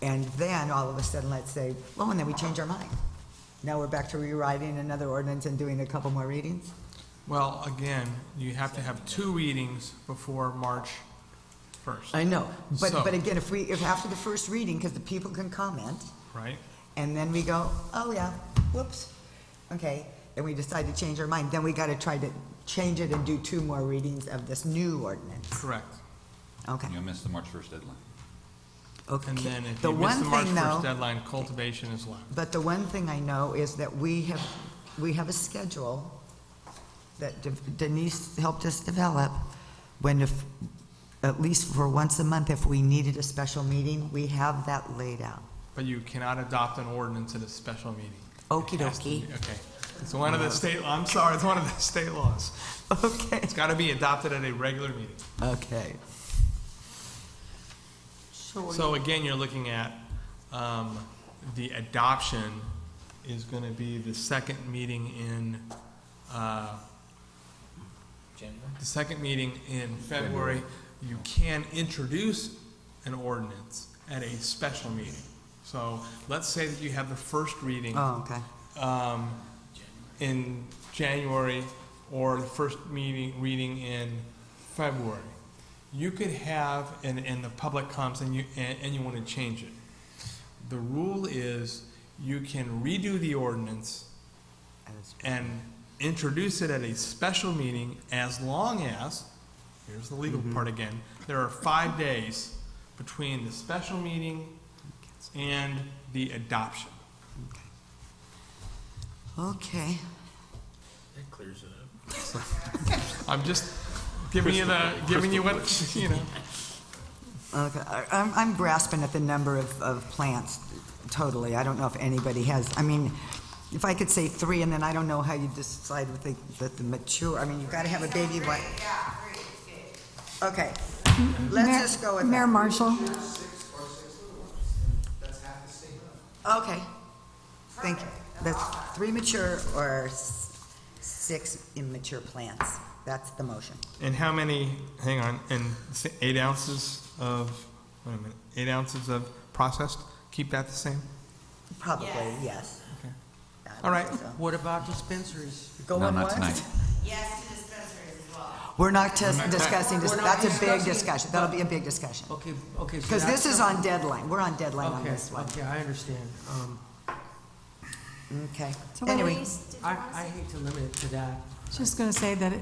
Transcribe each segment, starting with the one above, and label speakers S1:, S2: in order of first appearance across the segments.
S1: And then, all of a sudden, let's say, well, and then we change our mind. Now we're back to rewriting another ordinance and doing a couple more readings?
S2: Well, again, you have to have two readings before March 1st,
S1: I know, but,
S2: So-
S1: but again, if we, if after the first reading, because the people can comment,
S2: right?
S1: and then we go, oh, yeah, whoops, okay, then we decide to change our mind, then we gotta try to change it and do two more readings of this new ordinance.
S2: Correct.
S1: Okay,
S3: You'll miss the March 1st deadline.
S1: okay.
S2: And then if
S1: The
S2: you miss
S1: one
S2: the March
S1: thing,
S2: 1st
S1: though,
S2: deadline, cultivation is left.
S1: But the one thing I know is that we have, we have a schedule that De- Denise helped us develop, when if, at least for once a month, if we needed a special meeting, we have that laid out.
S2: But you cannot adopt an ordinance at a special meeting.
S1: Okie
S2: It has to
S1: dokie.
S2: be- Okay. It's one of the state, I'm sorry, it's one of the state laws.
S1: Okay.
S2: It's got to be adopted at a regular meeting.
S1: Okay.
S2: So again, you're looking at, um, the adoption is going to be the second meeting in, uh, the second meeting in February. You can introduce an ordinance at a special meeting. So let's say that you have the first reading
S1: Oh, okay.
S2: um, in January or the first meeting, reading in February. You could have, and, and the public comes and you, and, and you want to change it. The rule is you can redo the ordinance and introduce it at a special meeting as long as, here's the legal part again, there are five days between the special meeting and the adoption.
S1: Okay.
S2: I'm just giving you the, giving you what, you know.
S1: Okay, I- I'm, I'm grasping at the number of, of plants totally. I don't know if anybody has, I mean, if I could say three, and then I don't know how you decide with the, that the mature, I mean, you've got to have a baby one. Okay, let's
S4: Mayor-
S1: just go with
S4: Mayor
S1: that.
S4: Marshall,
S1: Okay, thank you. That's three mature or s- six immature plants. That's the motion.
S2: And how many, hang on, and s- eight ounces of, wait a minute, eight ounces of processed? Keep that the same?
S1: Probably, yes.
S2: Okay.
S1: I would
S2: All right.
S1: say so.
S5: What about dispensaries?
S1: Go
S3: No,
S1: on
S3: not
S1: what?
S3: tonight.
S6: Yes to dispensaries as well.
S1: We're not just discussing, this.
S5: We're not
S1: that's a big
S5: discussing it.
S1: discussion. That'll be a big discussion.
S5: Okay, okay. so
S1: Because
S5: that's
S1: this is
S5: something-
S1: on deadline, we're on deadline on
S5: Okay,
S1: this one.
S5: Okay, I understand. Um,
S1: Okay.
S4: So what
S1: Anyway,
S5: I, I hate to limit it to that.
S4: just going to say that it-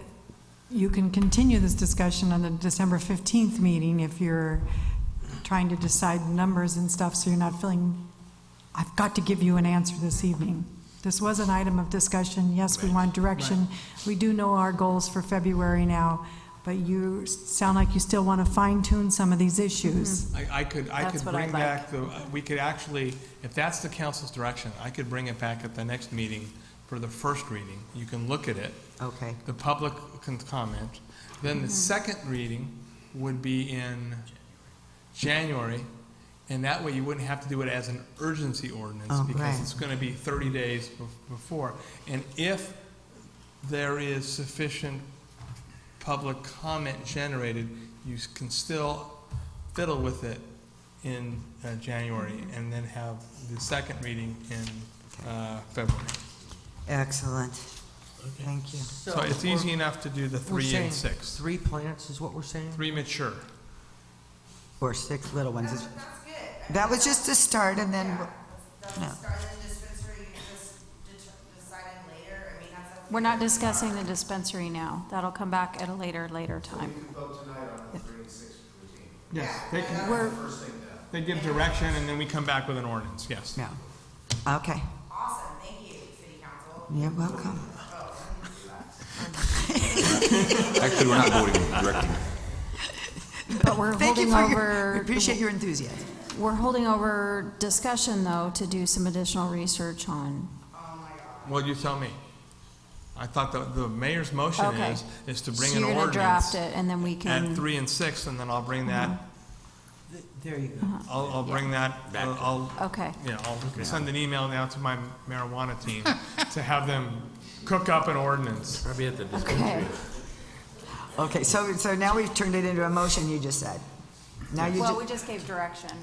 S4: you can continue this discussion on the December 15th meeting if you're trying to decide numbers and stuff, so you're not feeling, I've got to give you an answer this evening. This was an item of discussion, yes, we want direction. We do know our goals for February now, but you s- sound like you still want to fine tune some of these issues.
S2: I, I could, I could
S4: That's what I
S2: bring
S4: like.
S2: back the, we could actually, if that's the council's direction, I could bring it back at the next meeting for the first reading. You can look at it.
S1: okay,
S2: The public can comment. Then
S1: Mm-hmm.
S2: the second reading would be in January, and that way you wouldn't have to do it as an urgency ordinance
S1: Oh,
S2: because
S1: right.
S2: it's going to be 30 days bef- before. And if there is sufficient public comment generated, you s- can still fiddle with it in uh, January
S1: Mm-hmm.
S2: and then have the second reading in uh, February.
S1: excellent. Thank you.
S2: So it's
S5: we're-
S2: easy enough to do the
S5: we're
S2: three and
S5: saying
S2: six.
S5: Three plants is what we're saying?
S2: Three mature.
S1: Or six little ones.
S6: That's,
S1: It's-
S6: that's good. I mean,
S1: That was just a start, and then,
S6: yeah, That's
S1: no.
S6: the start of the dispensary, you just det- deciding later, I mean, that's. up to
S7: We're not
S6: you.
S7: discussing the dispensary now. That'll come back at a later, later time.
S2: Yes, they can, they give direction and then we come back with an ordinance, yes.
S1: yeah. Okay,
S6: Awesome, thank you, city council.
S1: you're welcome.
S3: Actually, we're not voting, we're directing.
S7: But we're
S1: Thank you
S7: holding
S1: for your, we
S7: over,
S1: appreciate your enthusiasm.
S7: we're holding over discussion, though, to do some additional research on.
S2: Well, you tell me. I thought the, the mayor's motion
S7: Okay.
S2: is, is to bring
S7: So
S2: an
S7: you're gonna
S2: ordinance
S7: draft it, and Mm-hmm. then we
S2: at
S7: can,
S2: three and six and then I'll bring that,
S5: Th- There you go.
S2: I'll, I'll bring that, uh, I'll,
S7: okay.
S2: yeah, I'll send an email now to my marijuana team to have them cook up an ordinance.
S8: Probably at the
S7: Okay.
S1: Okay, so, so now we've turned it into a motion, you just said. Now you
S7: Well, we
S1: just,
S7: just gave direction.